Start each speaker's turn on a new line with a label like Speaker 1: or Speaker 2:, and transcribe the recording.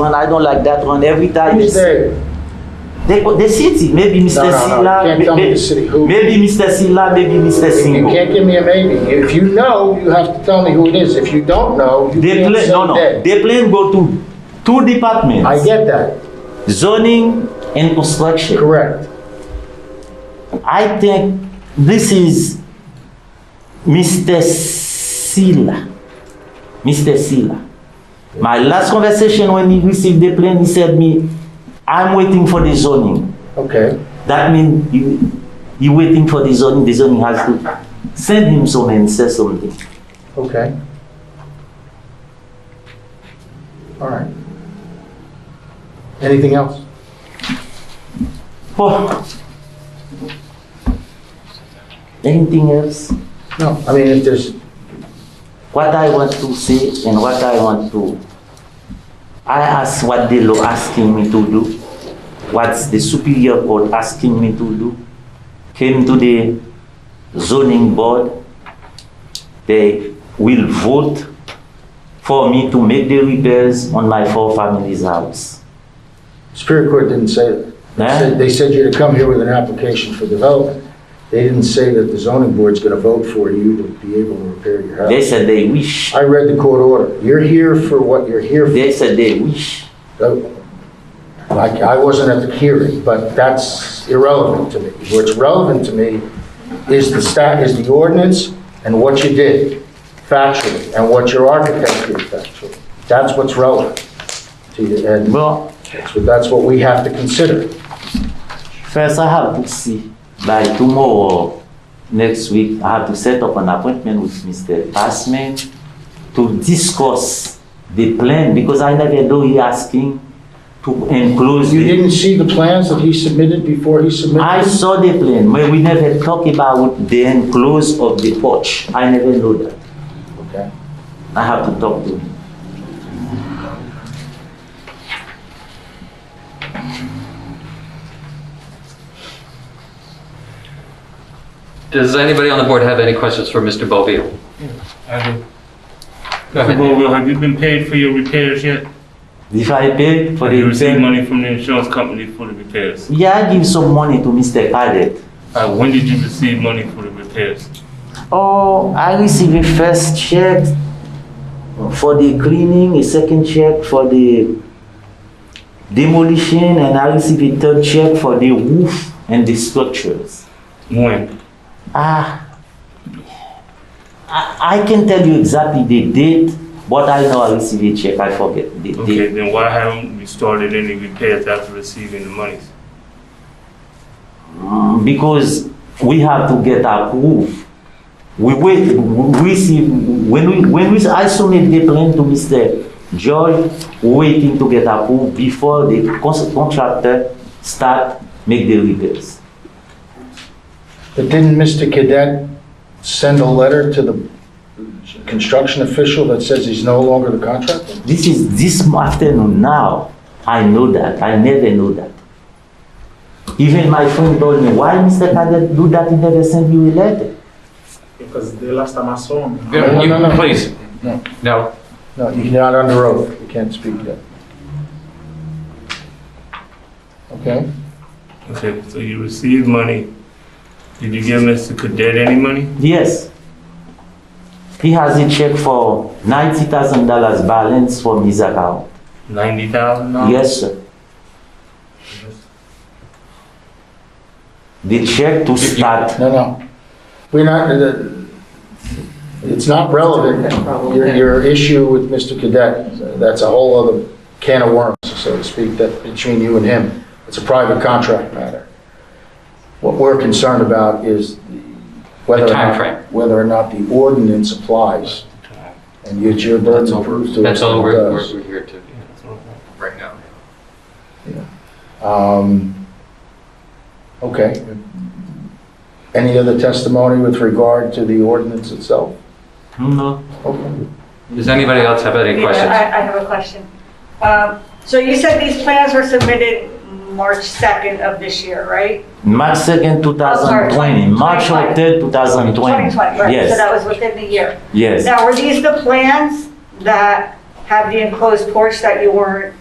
Speaker 1: one. I don't like that one. Every time
Speaker 2: Who's
Speaker 1: they, they
Speaker 2: they?
Speaker 1: the city, maybe
Speaker 2: No,
Speaker 1: Mr.
Speaker 2: no, no, you
Speaker 1: Silla,
Speaker 2: can't
Speaker 1: may-
Speaker 2: tell me
Speaker 1: may-
Speaker 2: the city. Who?
Speaker 1: maybe Mr. Silla, maybe Mr.
Speaker 2: You
Speaker 1: Singo.
Speaker 2: can't give me a maybe. If you know, you have to tell me who it is. If you don't know, you
Speaker 1: They
Speaker 2: can't
Speaker 1: play
Speaker 2: say
Speaker 1: no no.
Speaker 2: that.
Speaker 1: They plan go to two departments:
Speaker 2: I get that,
Speaker 1: zoning and construction.
Speaker 2: correct.
Speaker 1: I think this is Mr. Silla. Mr. Silla. My last conversation when he received the plan, he said me, I'm waiting for the zoning.
Speaker 2: Okay,
Speaker 1: That means you, you waiting for the zoning, the zoning has to send him some and say something.
Speaker 2: okay. All right. Anything else?
Speaker 1: Oh. Anything else?
Speaker 2: No, I mean, if there's,
Speaker 1: What I want to say and what I want to, I ask what the law asking me to do, what the superior court asking me to do, came to the zoning board, they will vote for me to make the repairs on my four families' house.
Speaker 2: Superior Court didn't say that. They
Speaker 1: Huh?
Speaker 2: said- They said you to come here with an application for development. They didn't say that the zoning board's gonna vote for you to be able to repair your
Speaker 1: They
Speaker 2: house.
Speaker 1: said they wish,
Speaker 2: I read the court order. You're here for what you're here for.
Speaker 1: they said they wish.
Speaker 2: Oh, I, I wasn't at the hearing, but that's irrelevant to me. What's relevant to me is the stat, is the ordinance and what you did factually, and what your architect did factually. That's what's relevant to you, and
Speaker 1: Well,
Speaker 2: so that's what we have to consider.
Speaker 1: First, I have to see by tomorrow, or next week, I have to set up an appointment with Mr. Passman to discuss the plan because I never know he asking to enclose
Speaker 2: You
Speaker 1: the.
Speaker 2: didn't see the plans that he submitted before he submitted?
Speaker 1: I saw the plan, but we never talk about the enclose of the porch. I never know that.
Speaker 2: Okay.
Speaker 1: I have to talk to him.
Speaker 3: Does anybody on the board have any questions for Mr. Bovee?
Speaker 4: I do.
Speaker 3: Go
Speaker 4: Mr.
Speaker 3: ahead.
Speaker 4: Bovill, have you been paid for your repairs yet?
Speaker 1: If I pay for
Speaker 4: Have you
Speaker 1: the
Speaker 4: received
Speaker 1: plan,
Speaker 4: money from the insurance company for the repairs?
Speaker 1: yeah, I give some money to Mr. Cadet.
Speaker 4: Uh, when did you receive money for the repairs?
Speaker 1: Oh, I receive a first check for the cleaning, a second check for the demolition, and I receive a third check for the roof and the structures.
Speaker 4: When?
Speaker 1: Ah, I, I can tell you exactly the date, but I know I receive a check. I forget the
Speaker 4: Okay,
Speaker 1: date.
Speaker 4: then why haven't we started any repairs after receiving the monies?
Speaker 1: Mm, Because we have to get approved. We wait, we receive, when we, when we, I submit the plan to Mr. George, waiting to get approved before the cons- contractor start make the repairs.
Speaker 2: But didn't Mr. Cadet send a letter to the construction official that says he's no longer the contractor?
Speaker 1: This is this afternoon now. I know that. I never know that. Even my friend told me, why Mr. Cadet do that? He never sent you a letter.
Speaker 5: Because the last time I saw him,
Speaker 2: No, no, no.
Speaker 3: You- Please.
Speaker 2: No.
Speaker 3: No.
Speaker 2: No, you're not under oath, you can't speak yet. Okay,
Speaker 4: Okay, so you received money. Did you give Mr. Cadet any money?
Speaker 1: Yes. He has a check for ninety thousand dollars balance from his account.
Speaker 4: Ninety thousand dollars?
Speaker 1: Yes, sir. The check to start.
Speaker 2: no, no. We're not, the- it's not relevant, your, your issue with Mr. Cadet, that's a whole other can of worms, so to speak, that between you and him. It's a private contract matter. What we're concerned about is whether or
Speaker 3: timeframe.
Speaker 2: not, whether or not the ordinance applies. And it's your burden to prove to us
Speaker 3: That's
Speaker 2: that
Speaker 3: all
Speaker 2: it
Speaker 3: we're,
Speaker 2: does.
Speaker 3: we're we're here to, right now.
Speaker 2: Um, Okay. Any other testimony with regard to the ordinance itself?
Speaker 1: No.
Speaker 2: Okay.
Speaker 3: Does anybody else have any
Speaker 6: Yeah,
Speaker 3: questions?
Speaker 6: I I have a question. Um, So you said these plans were submitted March 2nd of this year, right?
Speaker 1: March second, two thousand Oh, twenty. March
Speaker 6: Sorry,
Speaker 1: third, two thousand twenty.
Speaker 6: 2020, right, so that
Speaker 1: Yes,
Speaker 6: was within the year.
Speaker 1: yes.
Speaker 6: Now, were these the plans that have the enclosed porch that you weren't